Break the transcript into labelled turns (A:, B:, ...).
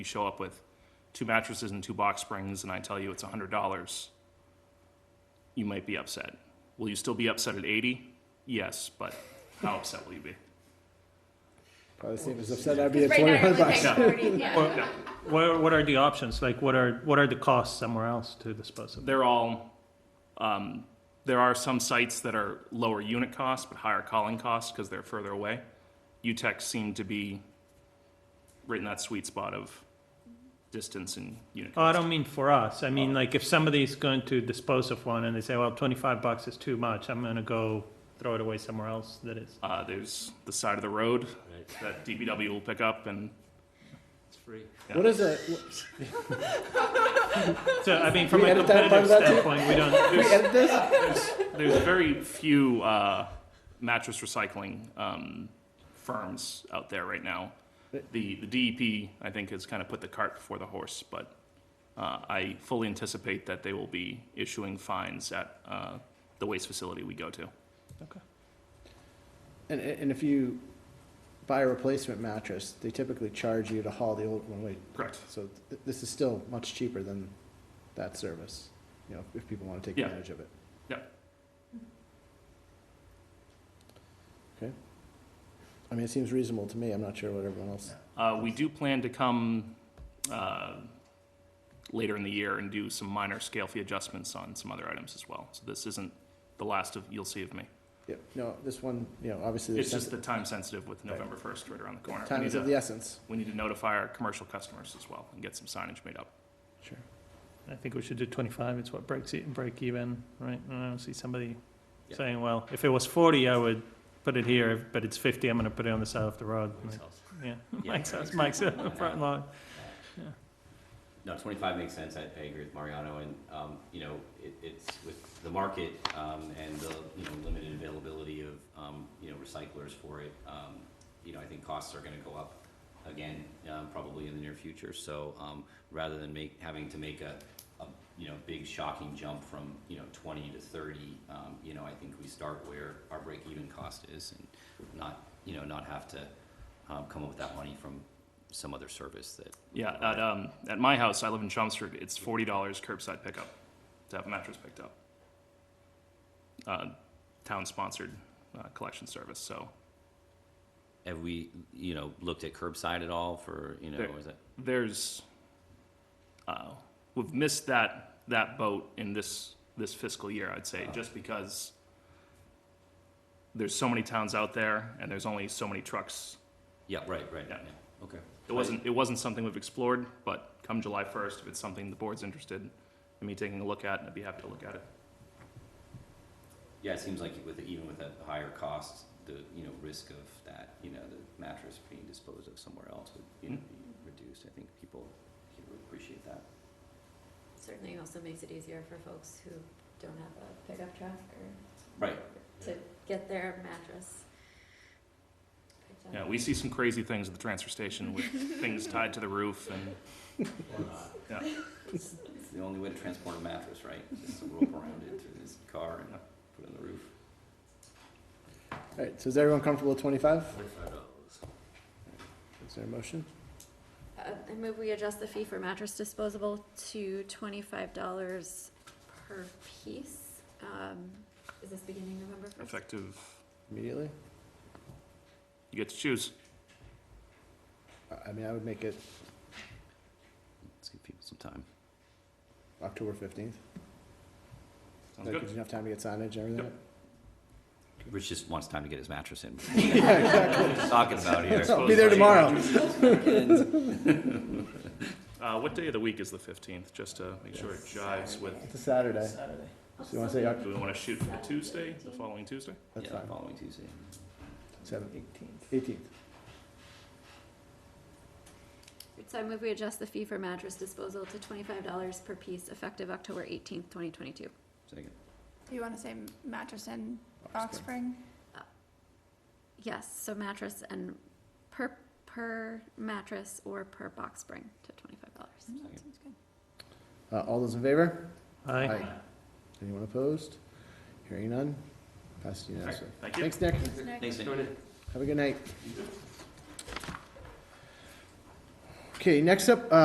A: you show up with two mattresses and two box springs and I tell you it's hundred dollars, you might be upset. Will you still be upset at eighty? Yes, but how upset will you be?
B: Probably the same as upset I'd be at
C: Right now, you're
B: twenty-one
C: only
B: bucks.
C: paying forty, yeah.
A: No,
D: What are, what are the options? Like, what are, what are the costs somewhere else to dispose of?
A: They're all, um, there are some sites that are lower unit costs but higher calling costs because they're further away. UTEC seemed to be right in that sweet spot of distance and unit
D: Oh, I
A: cost.
D: don't mean for us. I mean, like, if somebody's going to dispose of one and they say, well, twenty-five bucks is too much, I'm gonna go throw it away somewhere else that is.
A: Uh, there's the side of the road
E: Right.
A: that DPW will pick up and
E: It's free.
A: Yeah.
B: What is it?
D: So, I mean, from
B: We
D: a
B: edit that part
D: competitive
B: of that too?
D: standpoint, we don't,
B: We edit this?
A: There's very few uh, mattress recycling um, firms out there right now. The, the DEP, I think, has kind of put the cart before the horse, but uh, I fully anticipate that they will be issuing fines at uh, the waste facility we go to.
B: And, and if you buy a replacement mattress, they typically charge you to haul the old one away.
A: Correct.
B: So th- this is still much cheaper than that service, you know, if people want to take
A: Yeah.
B: advantage of it.
A: Yeah.
B: Okay. I mean, it seems reasonable to me. I'm not sure what everyone else.
A: Uh, We do plan to come uh, later in the year and do some minor scale fee adjustments on some other items as well. So this isn't the last of, you'll see of me.
B: Yeah, no, this one, you know, obviously.
A: It's
B: there's
A: just the time sensitive with November 1st right around the corner. We
B: Time
A: need
B: is
A: to-
B: of the essence.
A: We need to notify our commercial customers as well and get some signage made up.
B: Sure.
D: I think we should do twenty-five, it's what breaks it, break even, right? And I don't see somebody
E: Yeah.
D: saying, well, if it was forty, I would put it here, but it's fifty, I'm gonna put it on the side of the road.
E: Makes
D: Like,
E: sense.
D: Yeah,
E: Yeah.
D: Mike's house, Mike's front lawn.
E: No, twenty-five makes sense, I I agree with Mariano, and, um, you know, it, it's with the market, um, and the, you know, limited availability of, um, you know, recyclers for it, um, you know, I think costs are gonna go up again, um, probably in the near future, so, um, rather than make, having to make a, a, you know, big shocking jump from, you know, twenty to thirty, um, you know, I think we start where our break-even cost is, and not, you know, not have to, um, come up with that money from some other service that.
A: Yeah, at, um, at my house, I live in Chelmsford, it's forty dollars curbside pickup to have a mattress picked up. Uh, town-sponsored, uh, collection service, so
E: Have we, you know, looked at curbside at all for, you know,
A: There-
E: is it?
A: there's, uh, we've missed that, that boat in this, this fiscal year, I'd say, just because there's so many towns out there and there's only so many trucks
E: Yeah, right, right, yeah,
A: Yeah.
E: okay.
A: It wasn't, it wasn't something we've explored, but come July first, if it's something the board's interested in me taking a look at, I'd be happy to look at it.
E: Yeah, it seems like with, even with a higher cost, the, you know, risk of that, you know, the mattress being disposed of somewhere else would, you know, be reduced. I think people here would appreciate that.
C: Certainly also makes it easier for folks who don't have a pickup truck or
E: Right,
C: to get their mattress. picked up.
A: Yeah, we see some crazy things at the transfer station with things tied to the roof and,
E: it's the only way to transport a mattress, right? Just rope around it through this car and put it on the roof.
B: All right, so is everyone comfortable with twenty-five?
E: Twenty-five dollars.
B: Is there a motion?
C: Uh, I move we adjust the fee for mattress disposable to twenty-five dollars per piece. Um, is this beginning November first?
A: effective,
B: Immediately?
A: you get to choose.
B: I- I mean, I would make it
E: Let's give people some time.
B: October fifteenth.
A: Sounds good.
B: Enough time to get signage and everything?
A: Yep.
E: Rich just wants time to get his mattress in. Talking about here.
B: I'll be there tomorrow.
A: Uh, what day of the week is the fifteenth, just to make sure it jives with,
B: It's a Saturday. So you want to say, Oc-
A: do we wanna shoot for the Tuesday, the following Tuesday?
B: that's
E: Yeah,
B: fine,
E: following Tuesday.
B: seven, eighteenth.
C: So I move we adjust the fee for mattress disposal to twenty-five dollars per piece effective October eighteenth, twenty twenty-two.
E: Second.
F: You want to say mattress and box spring?
C: Yes, so mattress and per, per mattress or per box spring to twenty-five dollars.
F: Mm, That sounds good.
B: Uh, all those in favor?
D: Aye.
B: Anyone opposed? Hearing none? Passed unanimously.
A: Thank you.
B: Thanks, Nick.
E: Thanks, Nick.
B: Have a good night. Okay, next up, uh,